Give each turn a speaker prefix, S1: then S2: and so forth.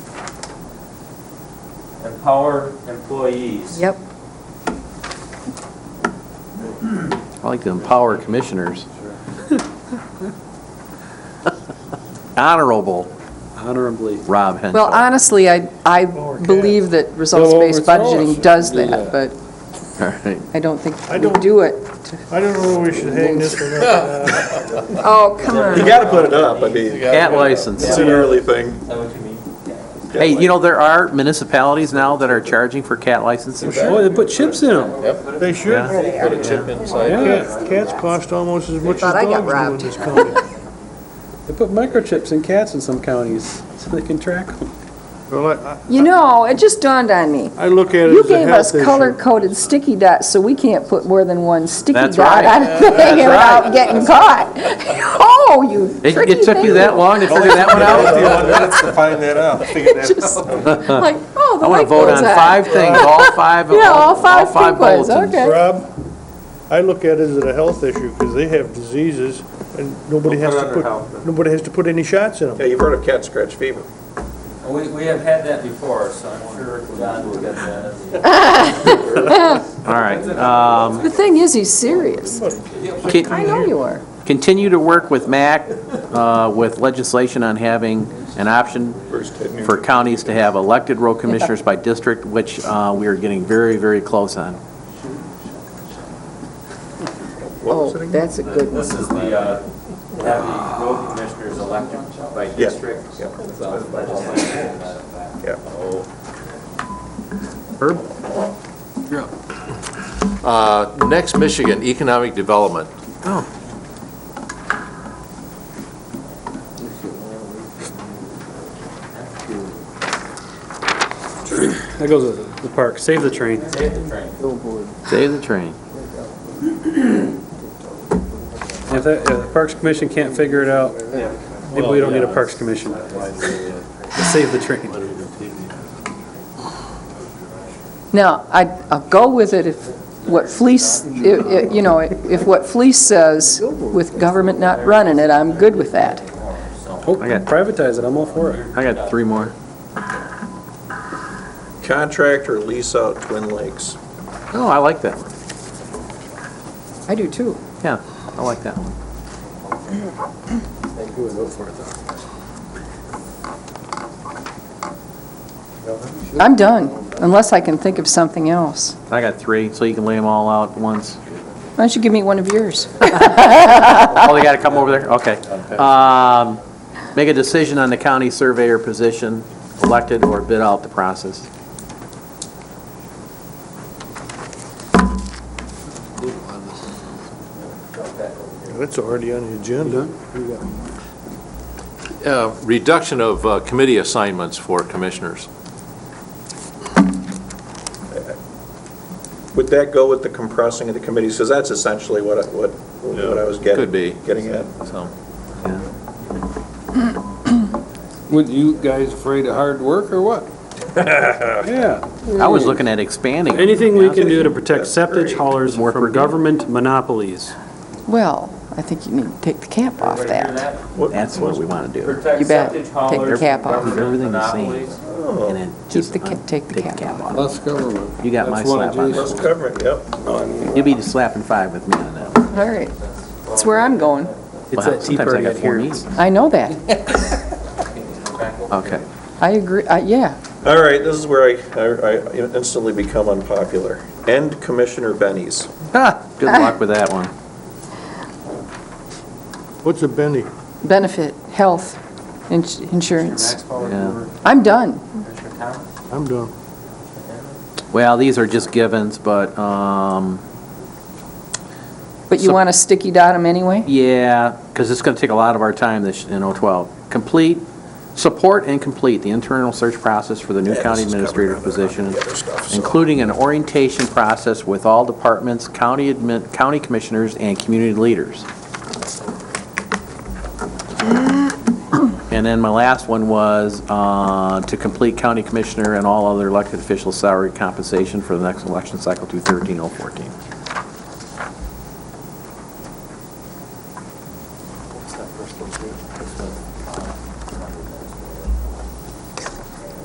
S1: empower employees.
S2: Yep.
S3: I like to empower commissioners. Honorable
S4: honorably.
S3: Rob Henshaw.
S2: Well, honestly, I, I believe that results-based
S5: Don't overthrow us.
S2: budgeting does
S4: Do
S2: that,
S4: that.
S2: but
S3: uh, All right.
S2: I don't think
S5: I
S2: we
S5: don't-
S2: do it. to-
S5: I don't know where we should hang this one up.
S2: Oh, come
S6: You
S2: on.
S6: gotta put it up, I mean,
S3: Cat license.
S6: it's an early thing.
S1: Is that what you mean?
S3: Hey, you know, there are municipalities now that are charging for cat licenses.
S4: Boy, they put chips in them.
S5: They should.
S3: Yeah.
S7: Put a chip inside.
S5: Cat- Cats cost almost as much as
S2: Thought I got
S5: dogs
S2: robbed.
S5: do in this county.
S4: They put microchips in cats in some counties so they can track them.
S5: Well, I-
S2: You know, it just dawned on me.
S5: I, I look at it
S2: You
S5: as a
S2: gave us
S5: health issue.
S2: color-coded sticky dots, so we can't put more than one sticky
S3: That's
S2: dot
S3: right.
S2: on a thing without getting caught. Oh, you
S3: It
S2: tricky
S3: it took you
S2: thing.
S3: that long to figure that one out?
S6: to find that out.
S2: Just Like, oh,
S3: I
S2: the
S3: want
S2: light
S3: to vote
S2: goes
S3: on
S2: on.
S3: five things, all five of
S2: Yeah, all five pinpoints,
S3: bulletins.
S2: okay.
S5: Rob, I look at it as a health issue because they have diseases and nobody
S1: We'll put
S5: has
S1: it
S5: to
S1: under health
S5: put,
S1: then.
S5: nobody has to put any shots in them.
S6: Yeah, you've heard of cat scratch fever.
S1: We, we have had that before, so I'm sure John will get that.
S3: All right. um,
S2: The thing is, he's serious.
S3: can-
S2: I know you are.
S3: Continue to work with MAC uh, with legislation on having an option
S6: Bruce Tidney.
S3: for counties to have elected road commissioners by district, which uh, we are getting very, very close on.
S2: Oh, that's a good one.
S1: This is the, uh, have the road commissioners elected by
S6: Yeah.
S1: district.
S6: Yeah.
S1: Legislation.
S6: Yeah.
S7: Uh, Next, Michigan, economic development.
S4: That goes with the park. Save the train.
S1: Save the train.
S3: Save the train.
S4: If that, if the Parks Commission can't figure it out, maybe we don't need a Parks Commission. Save the train.
S2: Now, I, I'll go with it if what Fleece, i- i- you know, if what Fleece says with government not running it, I'm good with that.
S4: Oh, privatize it. I'm all for it.
S3: I got three more.
S6: Contract or lease out Twin Lakes.
S3: Oh, I like that one.
S2: I do too.
S3: Yeah, I like that one.
S4: Who would vote for it though?
S2: I'm done, unless I can think of something else.
S3: I got three, so you can lay them all out at once.
S2: Why don't you give me one of yours?
S3: Oh, they got to come over there? Okay. Um, Make a decision on the county surveyor position, elected or bid out the process.
S5: That's already on the agenda.
S7: Uh, Reduction of uh, committee assignments for commissioners.
S6: Would that go with the compressing of the committees? Because that's essentially what, I- what, what I was getting.
S7: Could be.
S6: Getting at.
S7: So,
S8: Would you guys afraid of hard work or what?
S4: Yeah.
S3: I was looking at expanding.
S4: Anything we can do to protect
S6: That's great.
S4: septic haulers
S3: More per
S4: from
S3: diem.
S4: government monopolies.
S2: Well, I think you need to take the cap off
S1: Everybody hear
S2: that.
S3: That's what we want to do.
S1: Protect
S2: You bet.
S1: septic
S2: Take the
S1: haulers
S2: cap
S1: from
S2: off.
S1: government
S3: Everything the same.
S1: monopolies.
S3: And then
S2: Keep
S3: just
S2: the, ca-
S3: un-
S2: take the cap off.
S8: Less government.
S3: You got my
S8: That's one of
S3: slap on
S8: Jason's.
S6: Let's cover it, yep.
S3: You'll be slapping five with me on that. one.
S2: All right, that's where I'm going.
S4: It's
S3: Wow,
S4: that tea
S3: sometimes I
S4: party
S3: got
S4: out
S3: four
S4: here.
S3: meetings.
S2: I know that.
S3: Okay.
S2: I agree, I- yeah.
S6: All right, this is where I, I I instantly become unpopular. End Commissioner Benny's.
S3: Ah, Good luck with that one.
S5: What's a Benny?
S2: Benefit, health, ins- insurance.
S3: Yeah.
S2: I'm done.
S5: I'm done.
S3: Well, these are just givens, but, um,
S2: But you
S3: So-
S2: want to sticky dot them anyway?
S3: yeah, because it's going to take a lot of our time this, in 012. Complete, support and complete the internal search process for the new
S6: Yeah,
S3: county
S6: this is
S3: administrator
S6: covered under
S3: position,
S6: the other stuff, so-
S3: including an orientation process with all departments, county admin, county commissioners, and community leaders. And then my last one was uh, to complete oh county commissioner and all other elected officials' salary compensation for the next election cycle through 13 014.